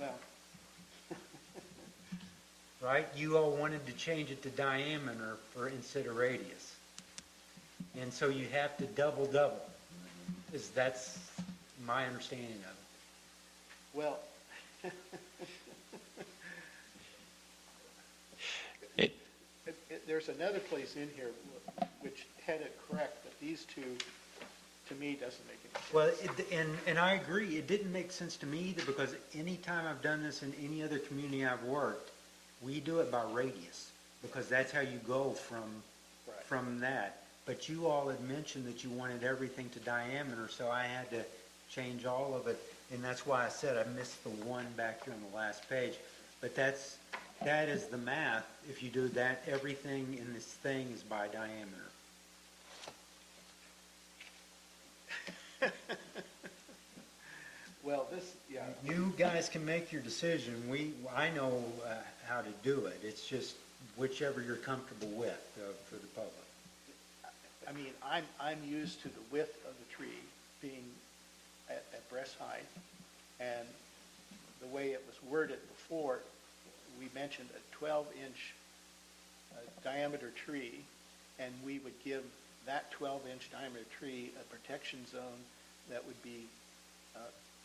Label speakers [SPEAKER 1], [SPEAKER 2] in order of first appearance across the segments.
[SPEAKER 1] Well,
[SPEAKER 2] right? You all wanted to change it to diameter for, instead of radius. And so you have to double, double, is, that's my understanding of it.
[SPEAKER 1] well,
[SPEAKER 3] It,
[SPEAKER 1] it- it- there's another place in here which had it correct, but these two, to me, doesn't make any sense.
[SPEAKER 2] Well, it- and, and I agree, it didn't make sense to me either, because any time I've done this in any other community I've worked, we do it by radius, because that's how you go from,
[SPEAKER 1] Right.
[SPEAKER 2] from that. But you all had mentioned that you wanted everything to diameter, so I had to change all of it, and that's why I said I missed the one back here on the last page. But that's, that is the math, if you do that, everything in this thing is by diameter.
[SPEAKER 1] Well, this, yeah,
[SPEAKER 2] You guys can make your decision. We, I know uh, how to do it. It's just whichever you're comfortable with uh, for the public.
[SPEAKER 1] I mean, I'm, I'm used to the width of the tree being at, at breast height, and the way it was worded before, we mentioned a twelve-inch uh, diameter tree, and we would give that twelve-inch diameter tree a protection zone that would be uh,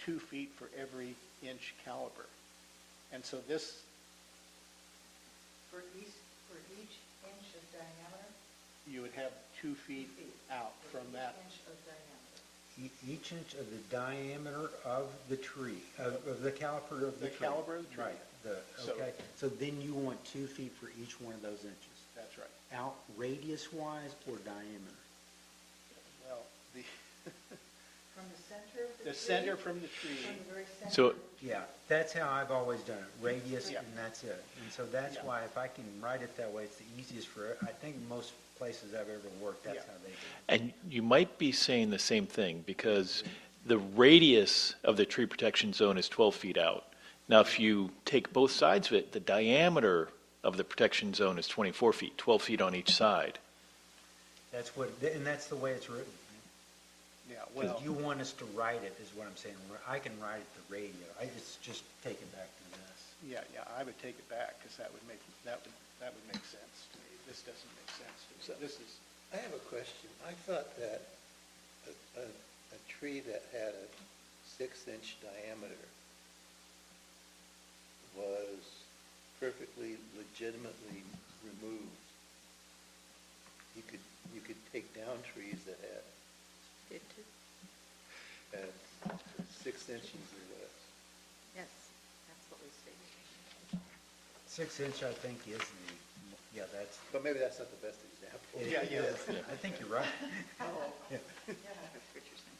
[SPEAKER 1] two feet for every inch caliber. And so this,
[SPEAKER 4] For each, for each inch of diameter?
[SPEAKER 1] you would have two feet out
[SPEAKER 4] for
[SPEAKER 1] from
[SPEAKER 4] each
[SPEAKER 1] that
[SPEAKER 4] Inch of diameter.
[SPEAKER 2] E- Each inch of the diameter of the tree, of, of the caliper of
[SPEAKER 1] The
[SPEAKER 2] the tree.
[SPEAKER 1] caliber of the tree.
[SPEAKER 2] Right, the,
[SPEAKER 1] So-
[SPEAKER 2] okay. So then you want two feet for each one of those inches,
[SPEAKER 1] That's right.
[SPEAKER 2] out radius wise or diameter?
[SPEAKER 1] Well, the,
[SPEAKER 4] From the center of the tree?
[SPEAKER 1] the center from the tree,
[SPEAKER 4] From the very center?
[SPEAKER 3] So-
[SPEAKER 4] of the tree.
[SPEAKER 2] Yeah, that's how I've always done it, radius
[SPEAKER 1] Yeah.
[SPEAKER 2] and that's it. And so that's
[SPEAKER 1] Yeah.
[SPEAKER 2] why if I can write it that way, it's the easiest for, I think most places I've ever worked, that's
[SPEAKER 1] Yeah.
[SPEAKER 2] how they do it.
[SPEAKER 3] and you might be saying the same thing, because the radius of the tree protection zone is 12 feet out. Now, if you take both sides of it, the diameter of the protection zone is 24 feet, 12 feet on each side.
[SPEAKER 2] That's what, and that's the way it's written.
[SPEAKER 1] yeah, well,
[SPEAKER 2] Because you want us to write it, is what I'm saying. I can write it to radio. I just, just take it back to this.
[SPEAKER 1] yeah, yeah, I would take it back, because that would make, that would, that would make sense to me. This doesn't make sense to me. So this is,
[SPEAKER 5] I have a question. I thought that a, a, a tree that had a six-inch diameter was perfectly legitimately removed. You could, you could take down trees that had,
[SPEAKER 6] Did too?
[SPEAKER 5] had six inches or less.
[SPEAKER 6] Yes, that's what we stated.
[SPEAKER 2] Six inch, I think, is the, yeah, that's,
[SPEAKER 5] But maybe that's not the best example.
[SPEAKER 2] it
[SPEAKER 1] Yeah, yeah.
[SPEAKER 2] is. I think you're right.
[SPEAKER 4] Oh.
[SPEAKER 6] Yeah, that's what you're saying.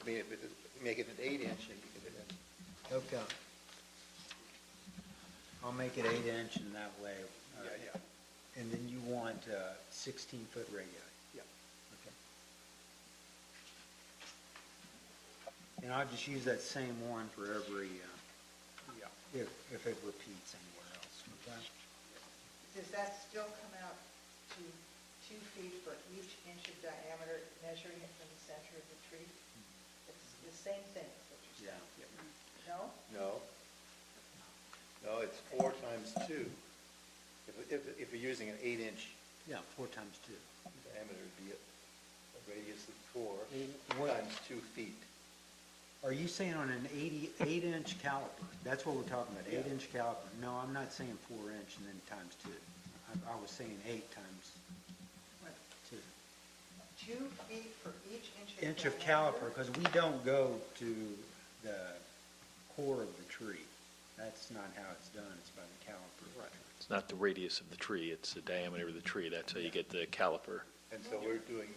[SPEAKER 5] I mean, if it, make it an eight-inch, and you could have
[SPEAKER 2] Okay. I'll make it eight inch and that way. uh,
[SPEAKER 1] yeah, yeah,
[SPEAKER 2] And then you want uh, sixteen foot radio.
[SPEAKER 1] yeah.
[SPEAKER 2] Okay. And I'll just use that same one for every, uh,
[SPEAKER 1] Yeah.
[SPEAKER 2] if, if it repeats anywhere else, okay?
[SPEAKER 4] Does that still come out to two feet for each inch of diameter, measuring it from the center of the tree? It's the same thing, is what you're saying?
[SPEAKER 2] Yeah.
[SPEAKER 4] No?
[SPEAKER 5] No. No, it's four times two. If, if, if you're using an eight-inch
[SPEAKER 2] Yeah, four times two.
[SPEAKER 5] diameter, it'd be a a radius of four
[SPEAKER 2] Mm, what-
[SPEAKER 5] times two feet.
[SPEAKER 2] Are you saying on an eighty, eight-inch caliper? That's what we're talking about,
[SPEAKER 5] Yeah.
[SPEAKER 2] eight-inch caliper. No, I'm not saying four-inch and then times two. I, I was saying eight times
[SPEAKER 4] What?
[SPEAKER 2] two.
[SPEAKER 4] Two feet for each inch of
[SPEAKER 2] Inch
[SPEAKER 4] diameter?
[SPEAKER 2] of caliper, because we don't go to the core of the tree. That's not how it's done, it's by the caliper. Right.
[SPEAKER 3] It's not the radius of the tree, it's the diameter of the tree. That's how you get the caliper.
[SPEAKER 5] And so we're doing,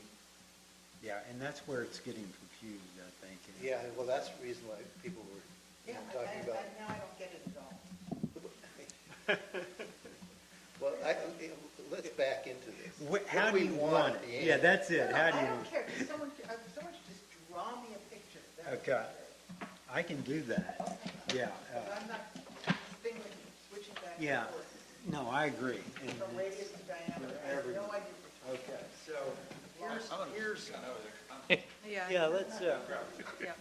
[SPEAKER 2] Yeah, and that's where it's getting confused, I think. and-
[SPEAKER 5] yeah, well, that's the reason why people were
[SPEAKER 4] Yeah, I, I,
[SPEAKER 5] talking about.
[SPEAKER 4] I- now I don't get it at all.
[SPEAKER 5] Well, I, let's back into this.
[SPEAKER 2] Wh- How
[SPEAKER 5] What
[SPEAKER 2] do
[SPEAKER 5] we
[SPEAKER 2] you want
[SPEAKER 5] at the
[SPEAKER 2] it?
[SPEAKER 5] end.
[SPEAKER 2] Yeah, that's it,
[SPEAKER 4] No,
[SPEAKER 2] how do you?
[SPEAKER 4] I don't care, If someone, if someone should just draw me a picture. that would be
[SPEAKER 2] Okay.
[SPEAKER 4] great.
[SPEAKER 2] I can do that, yeah. uh,
[SPEAKER 4] But I'm not thinking, switching back
[SPEAKER 2] Yeah,
[SPEAKER 4] and forth.
[SPEAKER 2] no, I agree. And
[SPEAKER 4] From radius to diameter, I have no idea. what
[SPEAKER 2] Okay, so,
[SPEAKER 4] you're talking about.
[SPEAKER 2] here's,
[SPEAKER 6] Yeah.
[SPEAKER 2] yeah, let's, uh,
[SPEAKER 6] Yeah.